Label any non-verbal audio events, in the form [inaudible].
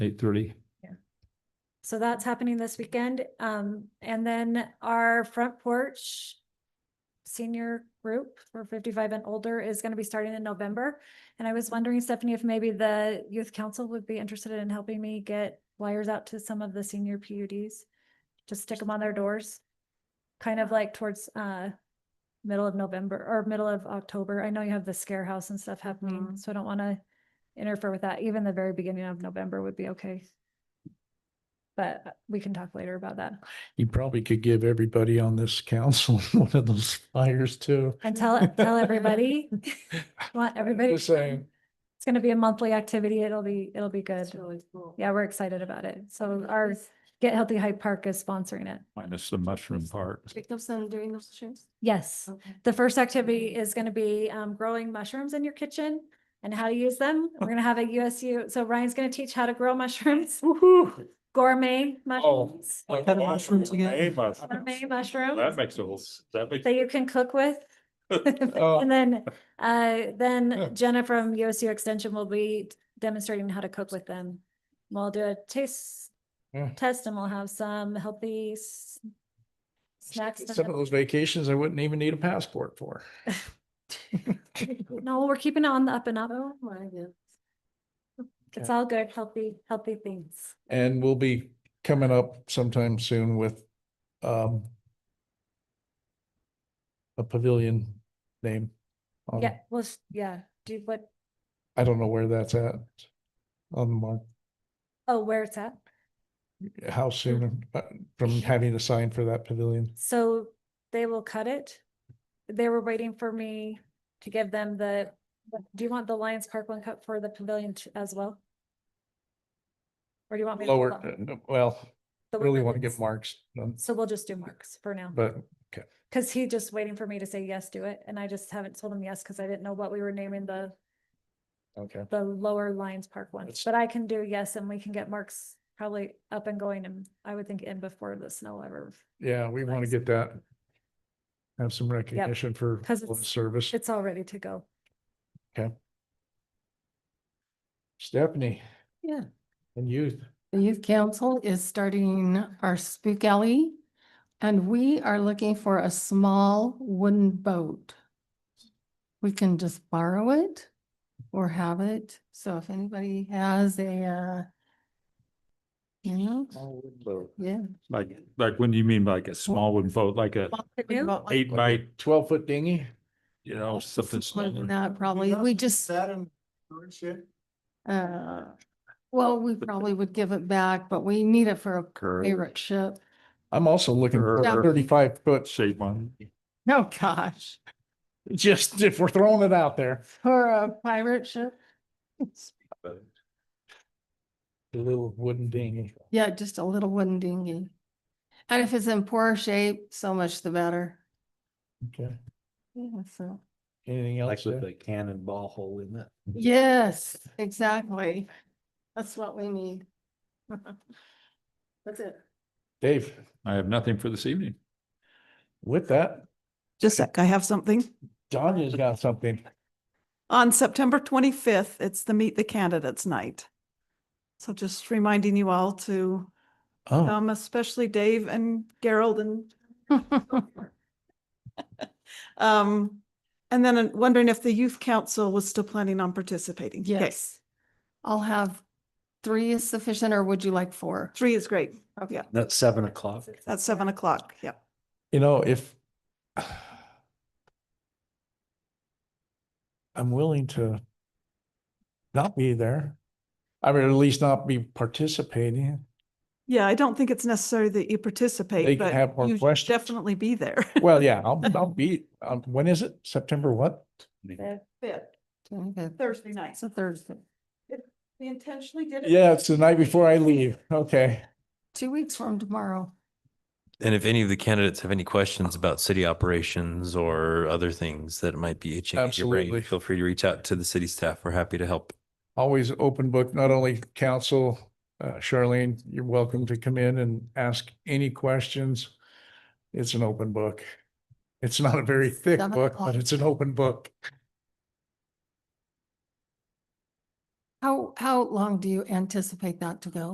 eight thirty. So that's happening this weekend. Um, and then our front porch senior group for fifty-five and older is gonna be starting in November. And I was wondering, Stephanie, if maybe the youth council would be interested in helping me get wires out to some of the senior PUDs? Just stick them on their doors, kind of like towards, uh, middle of November or middle of October. I know you have the scare house and stuff happening, Mhm. so I don't wanna interfere with that. Even the very beginning of November would be okay. But uh, we can talk later about that You probably could give everybody on this council [laughs] one of those flyers too. and tell, tell everybody. [laughs] Want everybody. Just saying. It's gonna be a monthly activity. It'll be, it'll be good. That's really cool. Yeah, we're excited about it. So our Get Healthy Hyde Park is sponsoring it. Minus the mushroom part. Jacobson doing those shoes? Yes. Okay. The first activity is gonna be um growing mushrooms in your kitchen and how to use them. We're gonna have a USU, so Ryan's gonna teach how to grow [laughs] mushrooms, Woohoo. gourmet mushrooms. Like kind of mushrooms again? Gourmet mushrooms. That makes a whole, s- that makes. Oh. that you can cook [laughs] with. [laughs] And then, uh, Yeah. then Jenna from USU Extension will be demonstrating how to cook with them. We'll do a taste Hmm. Yeah. test and we'll have some healthy s- snacks. to Some of them. those vacations I wouldn't even need a passport for. No, we're keeping it on the up and up. Oh, my goodness. It's all good, healthy, healthy things. And we'll be coming up sometime soon with um a pavilion name. Um. on- Yeah, well, s- yeah, do what, I don't know where that's at. On the mark, oh, where it's at. how soon uh, from having a sign for that pavilion. So they will cut it. They were waiting for me to give them the, do you want the Lions Park one cut for the pavilion t- as well? Or do you want? me to hold Lower, on? uh, well, The one really that want to give is- marks, um, So we'll just do marks for now, but because he just waiting for me to say yes to it, and I just haven't told him yes, because I didn't know what we were naming the, okay. the lower Lions Park one. That's- But I can do yes, and we can get marks probably up and going, and I would think in before the snow ever. Yeah, we want to get that. Have some recognition for 'cause all the it's- service. It's all ready to go. Stephanie. Yeah. And youth. The youth council is starting our spook alley. And we are looking for a small wooden boat. We can just borrow it or have it. So if anybody has a, uh, you know, yeah. Like, like, when do you mean like a small wooden boat, like a canoe? eight by, Twelve foot dinghy. you know, something smaller? Not probably. We just. That and current shit? Uh, well, we probably would give it back, but we need it for a Curve. pirate ship. I'm also looking for Yeah. a thirty-five foot, Shape one. Oh, gosh, just if we're throwing it out there. for a pirate ship. A little wooden dinghy. Yeah, just a little wooden dinghy. And if it's in poor shape, so much the better. Okay. Yeah, so, Anything else? there? a cannonball hole in it. yes, exactly. That's what we need. That's it. Dave, I have nothing for this evening. with that, Just a sec, I have something. Donna's got something. On September twenty-fifth, it's the Meet the Candidates Night. So just reminding you all to Oh, come, especially Dave and Gerald and um, and then I'm wondering if the youth council was still planning on participating. [laughs] Okay, Yes. I'll have three is sufficient, or would you like four? Three is great. Okay. That's seven o'clock. That's seven o'clock. Yep. you know, if I'm willing to not be there. I mean, at least not be participating. Yeah, I don't think it's necessary that They you participate, can but have more you should questions. definitely be there. [laughs] Well, yeah, I'll, I'll be, um, when is it? September what? It's Thursday night. a Thursday, We intentionally did Yeah, it's the night before I leave. Okay. two weeks from tomorrow. And if any of the candidates have any questions about city operations or other things that might be itching at your Absolutely. brain, feel free to reach out to the city staff. We're happy to help. Always open book, not only council, uh, Charlene, you're welcome to come in and ask any questions. It's an open book. It's not a very thick Seven book, o'clock. but it's an open book. How, how long do you anticipate that to go?